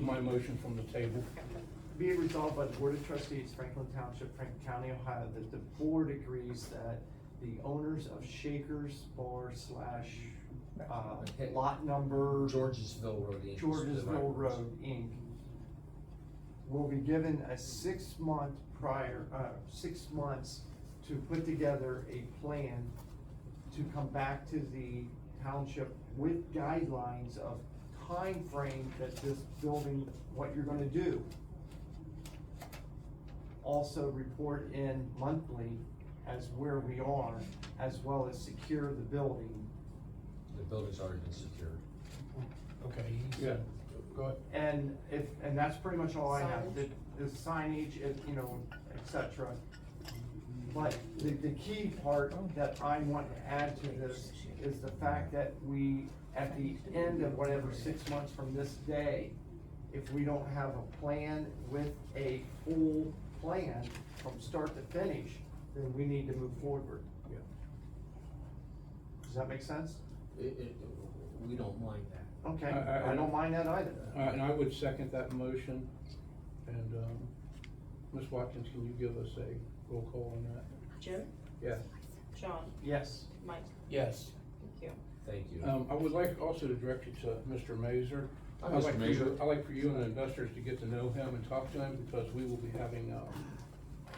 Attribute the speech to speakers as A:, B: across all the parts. A: motion from the table.
B: Be it resolved by the Board of Trustees, Franklin Township, Franklin County, Ohio, that the board agrees that the owners of Shakers Bar slash, uh, lot number
C: Georgesville Road. Inc. is the right
B: Georgesville
C: one.
B: Road, Inc. will be given a six-month prior, uh, six months to put together a plan to come back to the township with guidelines of time frame that this building, what you're gonna do. Also report in monthly as where we are, as well as secure the building
C: The building's already been secured.
A: Okay, yeah, go ahead.
B: And if, and that's pretty much all I have, the,
D: Signage.
B: the signage, if, you know, et cetera. But the, the key part that I want to add to this is the fact that we, at the end of whatever, six months from this day, if we don't have a plan with a full plan from start to finish, then we need to move forward.
A: Yeah.
B: Does that make sense?
C: It, it, we don't mind that.
B: Okay,
A: I- I-
B: I don't mind that either.
A: All right, and I would second that motion. And, um, Ms. Watkins, can you give us a roll call on that?
D: Jim,
A: Yes.
D: John,
B: Yes.
D: Mike,
A: Yes.
D: thank you.
C: Thank you.
A: Um, I would like also to direct you to Mr. Mazer.
C: Hi,
A: I'd
C: Mr.
A: like for you-
C: Mazur.
A: I'd like for you and the investors to get to know him and talk to him, because we will be having, um,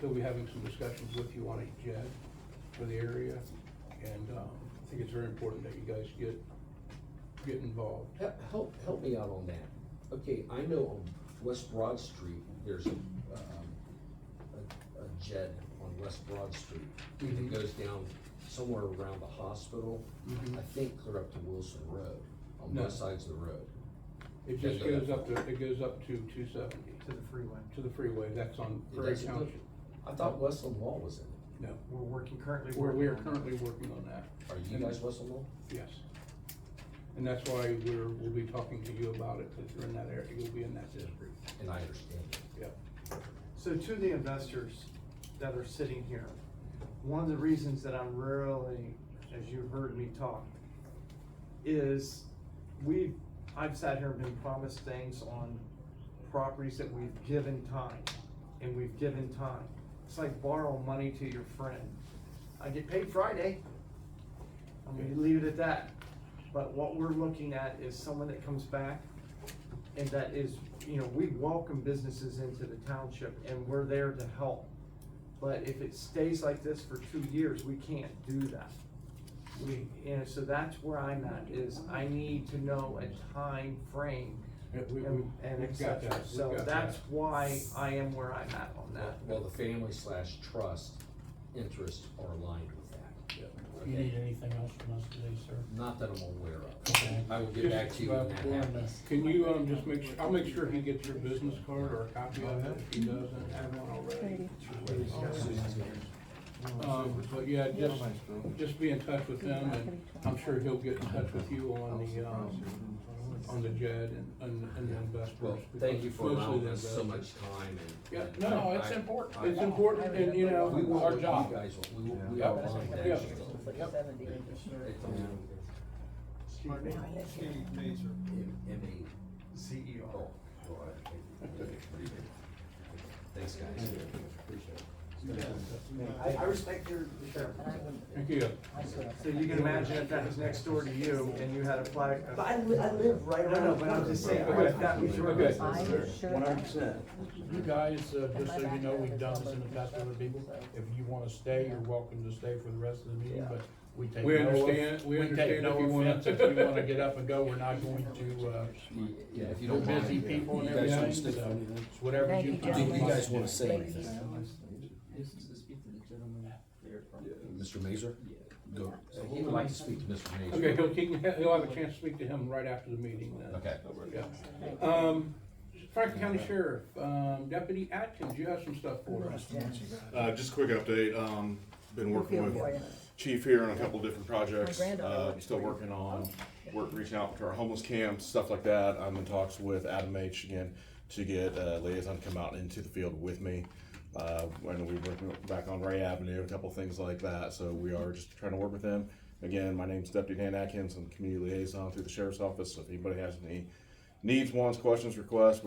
A: he'll be having some discussions with you on a jet for the area, and, um, I think it's very important that you guys get, get involved.
C: He- Help, help me out on that. Okay, I know on West Broad Street, there's a, um, a, a jet on West Broad Street.
A: Mhm.
C: It goes down somewhere around the hospital,
A: Mhm.
C: I think clear up to Wilson Road, on
A: No.
C: both sides of the road.
A: It just goes up to, it goes up to two seventy,
B: To the freeway.
A: to the freeway, that's on
C: It
A: Prairie
C: doesn't-
A: Township.
C: I thought Westland Wall was in it.
A: No,
B: We're working currently.
A: we're, we are
B: working on it.
A: currently working on that.
C: Are you guys Westland Wall?
A: Yes. And that's why we're, we'll be talking to you about it, because you're in that area, you'll be in that district.
C: And I understand.
A: Yep.
B: So to the investors that are sitting here, one of the reasons that I'm really, as you heard me talk, is we've, I've sat here and been promised things on properties that we've given time, and we've given time. It's like borrow money to your friend. I get paid Friday. I'm gonna leave it at that. But what we're looking at is someone that comes back and that is, you know, we welcome businesses into the township and we're there to help. But if it stays like this for two years, we can't do that. We, and so that's where I'm at, is I need to know a time frame
A: Yeah, we- we-
B: and, and et
A: we've got
B: cetera.
A: that, we've
B: So
A: got
B: that's
A: that.
B: why I am where I'm at on that.
C: Well, the family slash trust interests are aligned with that.
A: Yeah.
E: You need
C: Okay?
E: anything else from us today, sir?
C: Not that I'm aware
E: Okay.
C: of. I will get back to you when that
E: Just about born, uh,
C: happens.
A: Can you, um, just make sure, I'll make sure he gets your business card or a copy of it, if he doesn't have one already. Um, but yeah, just, just be in touch with him, and I'm sure he'll get in touch with you on the, um, on the JED and, and and the investors.
C: Well, thank you for
A: because
C: allowing
A: mostly
C: us so
A: the
C: much time
A: Yeah,
C: and.
A: no,
C: I-
A: it's
C: I-
A: important,
C: I-
A: it's important, and you
C: We
A: know,
C: want
A: our
C: what you
A: job.
C: guys want. We, want- we
A: Yeah.
C: are aligned. with
A: Yeah.
C: that. It's on
B: Excuse me.
C: M- M A.
B: CEO.
C: Oh, oh, I- Thanks, guys.
B: I, I respect your, your.
A: Thank you.
B: So you can imagine if that was next door to you and you had a flag.
F: But I, li- I live right
B: No,
F: around.
B: no,
F: the
B: but I'm
F: corner.
B: just saying,
A: Okay.
B: what if that was your
A: Okay.
B: business?
G: One hundred percent.
E: You guys, uh, just so you know, we've done this in the past with other people. If you wanna stay, you're welcome to stay for the rest of the meeting, but we take no.
A: We understand- we
E: take
A: understand if
E: no
A: you wanna-
E: offense If you wanna get up and go, we're not going to, uh,
C: Yeah, if you
E: we're
C: don't mind.
E: busy people and
C: you guys
E: everything,
C: can
E: so
C: stick-
E: it's whatever
G: Thank
E: you.
G: you,
C: Do
G: gentlemen.
C: you guys wanna say
G: Thank
C: anything?
G: you.
C: Mr. Mazur? Go. He would like to speak to Mr. Mazur.
A: Okay, he'll, he can- he'll have a chance to speak to him right after the meeting uh, then.
C: Okay.
A: Yeah. Um, Franklin County Sheriff, um, Deputy Atkins, you have some stuff for us.
H: Uh, just a quick update, um, been working
G: We'll feel
H: with
G: for
H: Chief here on a couple different projects.
G: My granddaughter
H: Uh,
G: works
H: still
G: for you.
H: working on, work, reaching out to our homeless camps, stuff like that. I'm in talks with Adam H again to get a liaison to come out into the field with me. Uh, when we working back on Ray Avenue, a couple things like that, so we are just trying to work with them. Again, my name's Deputy Dan Atkins, I'm community liaison through the sheriff's office, so if anybody has any needs, wants, questions, requests,